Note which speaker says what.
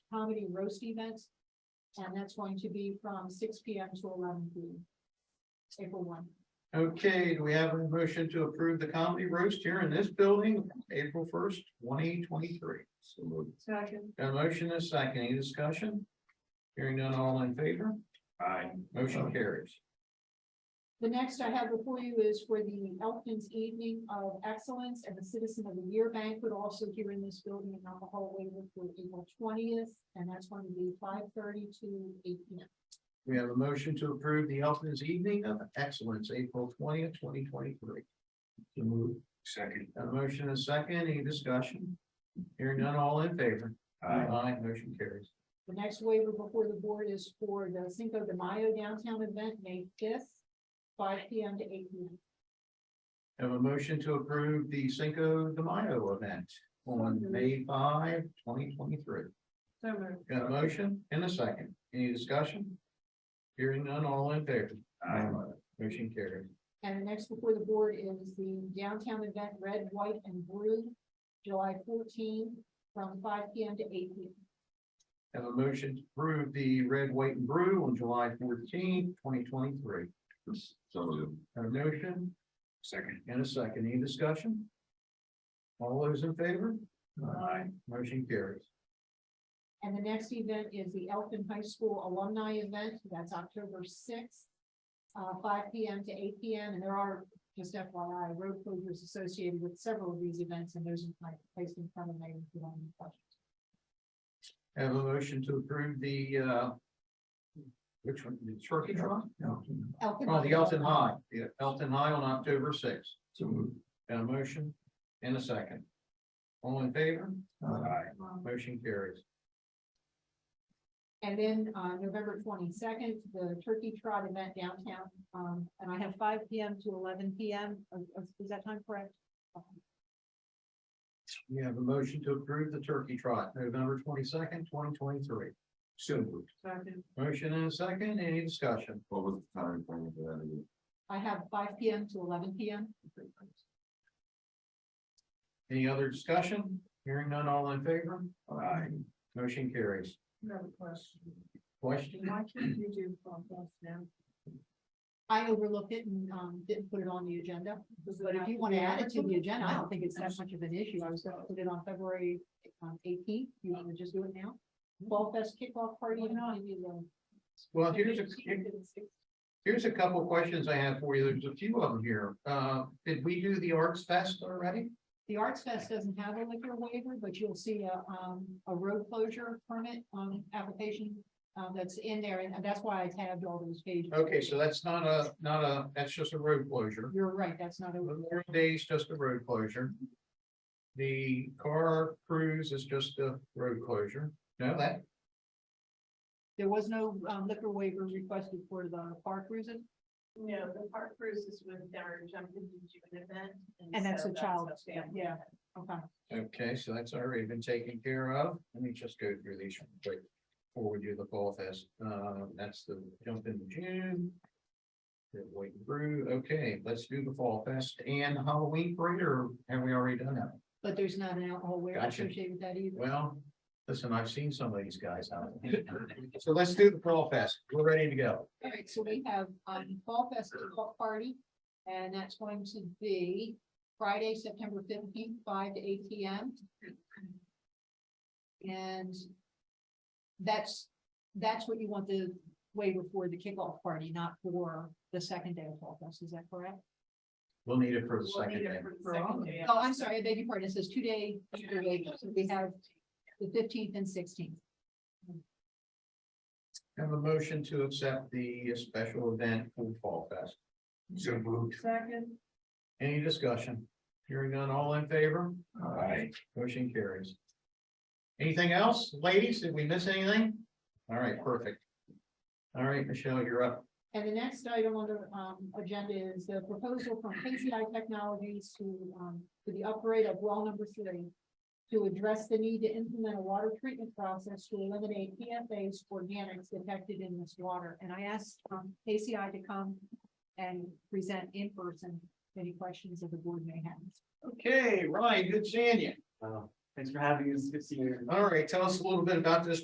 Speaker 1: comedy roast event. And that's going to be from six P M to eleven P M. April one.
Speaker 2: Okay, do we have a motion to approve the comedy roast here in this building, April first, twenty twenty-three? So moved.
Speaker 1: Second.
Speaker 2: Got a motion and a second, any discussion? Hearing none, all in favor?
Speaker 3: Aye.
Speaker 2: Motion carries.
Speaker 1: The next I have before you is for the Elkins Evening of Excellence and the Citizen of the Year banquet, also here in this building and on the hallway for April twentieth. And that's going to be five thirty to eight P M.
Speaker 2: We have a motion to approve the Elkins Evening of Excellence, April twentieth, twenty twenty-three. So moved.
Speaker 3: Second.
Speaker 2: Got a motion and a second, any discussion? Hearing none, all in favor?
Speaker 3: Aye.
Speaker 2: motion carries.
Speaker 1: The next waiver before the board is for the Cinco de Mayo downtown event, May fifth, five P M to eight P M.
Speaker 2: Have a motion to approve the Cinco de Mayo event on May 5, 2023.
Speaker 1: So
Speaker 2: Got a motion and a second. Any discussion? Hearing none, all in favor? Motion carried.
Speaker 1: And the next before the board is the downtown event, Red, White, and Blue, July fourteen, from five P M to eight P M.
Speaker 2: Have a motion to approve the Red, White, and Brew on July 14, twenty twenty-three.
Speaker 3: So moved.
Speaker 2: Have a motion
Speaker 3: Second.
Speaker 2: and a second. Any discussion? All those in favor?
Speaker 1: Aye.
Speaker 2: Motion carries.
Speaker 1: And the next event is the Elfin High School Alumni Event, that's October sixth, uh, five P M to eight P M, and there are, just FYI, road closures associated with several of these events, and those are placed in front of um, me if you have any questions.
Speaker 2: Have a motion to approve the, uh, which one, the turkey trot? No.
Speaker 1: Elfin
Speaker 2: Oh, the Elton
Speaker 1: Alumni.
Speaker 2: High, yeah, Elton High on October sixth. So moved. Got a motion and a second. All in favor?
Speaker 3: Aye.
Speaker 1: Um,
Speaker 2: Motion carries.
Speaker 1: And then, uh, November twenty-second, the Turkey Trot event downtown, um, and I have five P M to eleven P M, is that time correct?
Speaker 2: We have a motion to approve the turkey trot, November twenty-second, twenty twenty-three.
Speaker 3: So moved.
Speaker 2: Motion and a second, any discussion?
Speaker 3: What was the time frame for that again?
Speaker 1: I have five P M to eleven P M.
Speaker 2: Any other discussion? Hearing none, all in favor?
Speaker 3: Aye.
Speaker 2: Motion carries.
Speaker 1: Another question.
Speaker 2: Question?
Speaker 1: Why can't you do compost now? I overlooked it and, um, didn't put it on the agenda, but if you want to add it to the agenda, I don't think it's that much of an issue. I was gonna put it on February um, eighteenth. You want to just do it now? Fall Fest kickoff party. um,
Speaker 2: Well, here's a, here's a couple of questions I have for you. There's a few of them here. Uh, did we do the Arts Fest already?
Speaker 1: The Arts Fest doesn't have a liquor waiver, but you'll see a, um, a road closure permit, um, application, uh, that's in there, and that's why I tabbed all those pages.
Speaker 2: Okay, so that's not a, not a, that's just a road closure.
Speaker 1: You're right, that's not a,
Speaker 2: Memorial Day is just a road closure. The car cruise is just a road closure. No, that,
Speaker 1: there was no um, liquor waiver requested for the park reason,
Speaker 4: No, the park cruise is with our jumping into an event.
Speaker 1: and that's
Speaker 4: so
Speaker 1: a child,
Speaker 4: a
Speaker 1: yeah,
Speaker 4: family.
Speaker 1: yeah, okay.
Speaker 2: okay, so that's already been taken care of. Let me just go through these quick before we do the fall fest. Uh, that's the jump in June. Good wait and brew. Okay, let's do the fall fest and Halloween parade, or have we already done that?
Speaker 1: But there's not an alcohol waiver
Speaker 2: Gotcha.
Speaker 1: associated with that either.
Speaker 2: Well, listen, I've seen some of these guys. out. So let's do the fall fest. We're ready to go.
Speaker 1: All right, so we have, um, Fall Fest kickoff party, and that's going to be Friday, September fifteenth, five to eight P M. And that's, that's what you want the waiver for the kickoff party, not for the second day of Fall Fest, is that correct?
Speaker 2: We'll need it for the
Speaker 4: We'll
Speaker 2: second
Speaker 4: need
Speaker 2: day.
Speaker 4: it for the
Speaker 1: For all
Speaker 4: second
Speaker 1: of
Speaker 4: day.
Speaker 1: Oh, I'm sorry, I beg your pardon, it says two day, two day, so we have the fifteenth and sixteenth.
Speaker 2: Have a motion to accept the special event for Fall Fest.
Speaker 3: So moved.
Speaker 4: Second.
Speaker 2: Any discussion? Hearing none, all in favor?
Speaker 3: Aye.
Speaker 2: Motion carries. Anything else, ladies? Did we miss anything? All right, perfect. All right, Michelle, you're up.
Speaker 1: And the next item on the um agenda is the proposal from KCI Technologies to um to the upgrade of well number three. To address the need to implement a water treatment process to eliminate PFAS organics detected in this water. And I asked um KCI to come and present in person any questions that the board may have.
Speaker 2: Okay, Ryan, good seeing you.
Speaker 5: Thanks for having us. Good to see you.
Speaker 2: All right, tell us a little bit about this